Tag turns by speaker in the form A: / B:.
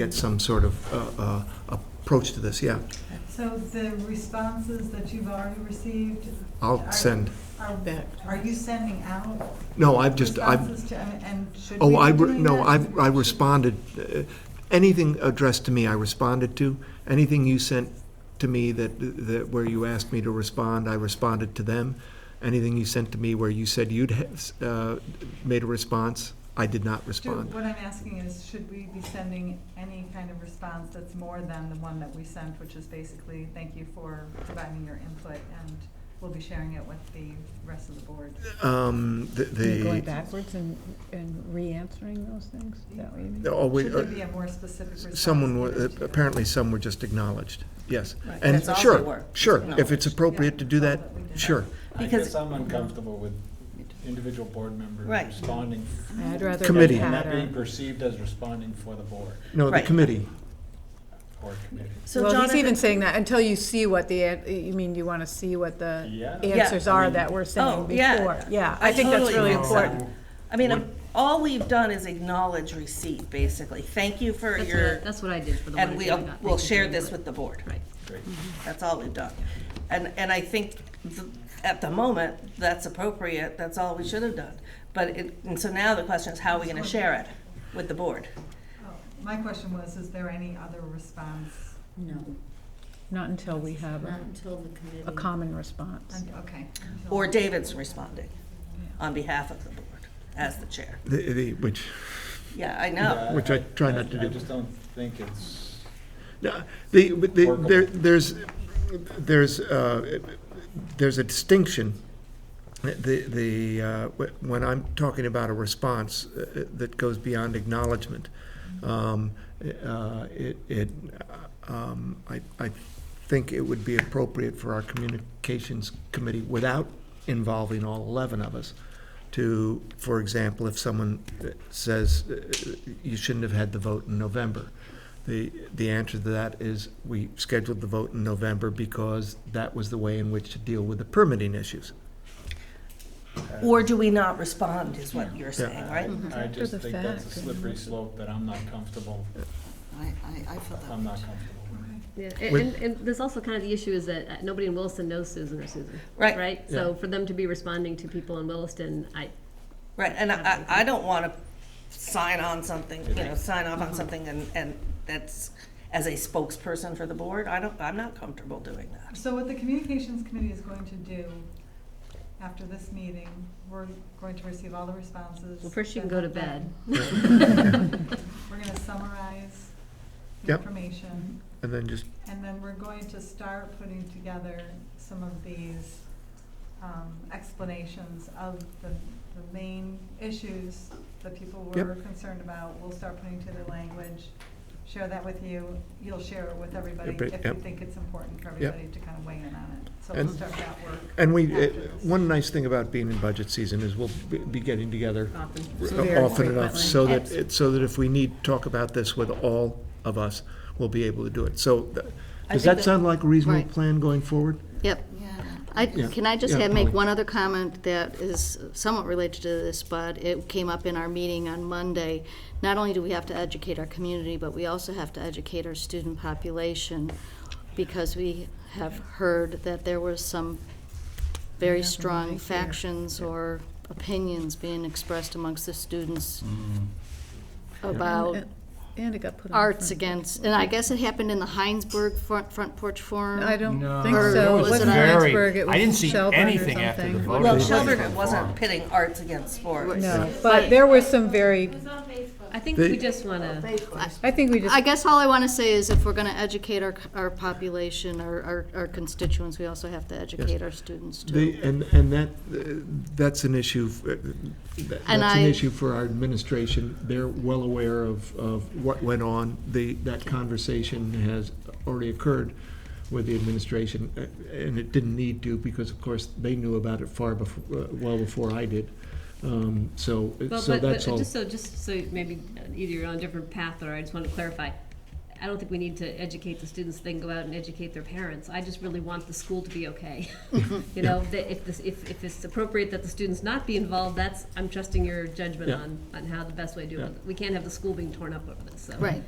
A: get some sort of uh, uh, approach to this, yeah.
B: So the responses that you've already received?
A: I'll
B: are-
A: send,
B: Are
C: Back.
B: are you sending out
A: no, I've just, I've,
B: responses to, and- and should we
A: oh, I,
B: be
A: re-
B: doing
A: no,
B: that?
A: I have I responded, uh, anything addressed to me, I responded to. Anything you sent to me that, that, where you asked me to respond, I responded to them. Anything you sent to me where you said you'd have, uh, made a response, I did not
B: Do-
A: respond.
B: What I'm asking is, should we be sending any kind of response that's more than the one that we sent, which is basically, thank you for providing your input, and we'll be sharing it with the rest of the board?
A: Um, the-
C: And Going
A: the,
C: backwards and, and re-answering those things? Is that what you mean?
A: oh, we-
B: Should there be a more specific response?
A: someone,
B: given
A: were-
B: to-
A: apparently some were just acknowledged, yes.
C: Right.
A: And
D: That's all they were,
A: sure,
D: just
A: sure, if it's
D: acknowledged.
A: appropriate to do
B: Yeah,
A: that,
B: that's all we did.
A: sure.
E: I
D: Because-
E: guess I'm uncomfortable with individual board members
D: Right.
E: responding.
C: I'd rather.
A: Committee.
E: And that
C: had
E: being
C: a-
E: perceived as responding for the board
A: No, the
D: Right.
A: committee.
E: or committee.
D: So
C: Well, he's
D: Jonathan-
C: even saying that, until you see what the, an- you mean, you want to see what the
E: Yeah.
C: answers
E: Yeah. I
C: are
E: mean-
C: that we're
D: Oh,
C: saying
D: yeah.
C: before. Yeah,
D: I
C: I think that's
D: totally
C: really
D: think so.
C: important.
D: I mean, I'm- all we've done is acknowledge receipt, basically. Thank you for
F: That's what, I-
D: your,
F: that's what I did for the one.
D: and
F: that
D: we'll,
F: we got.
D: we'll
F: Thank you
D: share
F: very
D: this
F: much.
D: with the board.
F: Right.
E: Great.
D: That's all we've done. And, and I think th- at the moment, that's appropriate, that's all we should have done. But it, and so now the question is, how are we gonna share it with the board?
B: Oh, My question was, is there any other response?
F: No,
C: Not until we have
F: not
C: a,
F: until the committee.
C: a common response.
B: And- Okay.
D: Or David's responding on behalf of the board as the chair.
A: The, the, which,
D: Yeah, I know.
E: Yeah,
A: Which I try not to
E: I
A: do.
E: just don't think it's,
A: no, the, but the,
E: Workable.
A: there, there's, there's, uh, there's a distinction. The, the, uh, wh- when I'm talking about a response uh, that goes beyond acknowledgement, um, uh, it, it, um, I, I think it would be appropriate for our communications committee, without involving all eleven of us, to, for example, if someone says, uh, you shouldn't have had the vote in November, the, the answer to that is, we scheduled the vote in November because that was the way in which to deal with the permitting issues.
D: Or do we not respond is what you're saying,
E: I
D: right?
E: I
C: After
E: just
C: the
E: think that's a
C: fact,
E: slippery slope that I'm not comfortable,
G: I, I, I felt that.
E: I'm not comfortable with.
F: Yeah, and,
A: With-
F: and, and there's also kind of the issue is that uh, nobody in Williston knows Susan or Susan.
D: Right.
F: Right? So for them to be responding to people in Williston, I,
D: Right, and I, I I don't want to sign on something, you know, sign off on something and, and that's, as a spokesperson for the board, I don't, I'm not comfortable doing that.
B: So what the communications committee is going to do after this meeting, we're going to receive all the responses.
F: well, first you can go to bed.
B: then- We're gonna summarize the
A: Yep.
B: information,
A: And then just
B: and then we're going to start putting together some of these um, explanations of the, the main issues that people were concerned about. We'll start putting together language, share that with you, you'll share it with everybody
A: Everybody,
B: if you
A: yep.
B: think it's important for everybody to kind of weigh in on it. So we'll
A: And-
B: start that work.
A: And we,
B: after
A: it-
B: this.
A: one nice thing about being in budget season is we'll be- be getting together
F: Often.
C: Very
A: often enough,
C: frequently.
A: so that, it- so that if we need to talk about this with all of us, we'll be able to do it. So, th-
D: I
A: does
D: think
A: that
D: that-
A: sound like a reasonable
H: Right.
A: plan going forward?
H: Yep.
G: Yeah.
H: I,
A: Yeah.
H: can I just
A: Yeah,
H: have, make
A: Polly.
H: one other comment that is somewhat related to this, but it came up in our meeting on Monday. Not only do we have to educate our community, but we also have to educate our student population because we have heard that there was some very strong factions or opinions being expressed amongst the students about
A: Mm-hmm.
C: And- And it got put on.
H: Oh. arts
C: front.
H: against, and I guess it happened in the Heinsberg Front, Front Porch Forum.
C: I don't think
H: Or
C: so.
H: was
C: It
H: it
C: wasn't
H: very-
C: Heinsberg, it was
I: I didn't see
C: Shelburne or
I: anything after the
C: something.
I: vote.
D: Well,
I: Right.
D: Shelburne, it wasn't pitting arts against sports.
C: No, but there were some very,
F: I think
A: They-
F: we just want to,
C: I think we just.
H: I guess all I want to say is if we're going to educate our, our population, our, our- our constituents, we also have to educate our students too.
A: The, and, and that, uh, that's an issue, f- uh, that-
H: And
A: that's an
H: I-
A: issue for our administration. They're well aware of, of what went on. The, that conversation has already occurred with the administration, uh, and it didn't need to, because of course, they knew about it far before, well before I did. Um, So, uh,
F: well,
A: so
F: but, but
A: that's all.
F: just so, just so maybe either you're on a different path or I just want to clarify. I don't think we need to educate the students, then go out and educate their parents. I just really want the school to be okay. You know, that if this, if, if it's appropriate that the students not be involved, that's, I'm trusting your judgment
A: Yeah.
F: on, on how the best way to do
A: Yeah.
F: it. We can't have the school being torn up over this, so.
H: Right,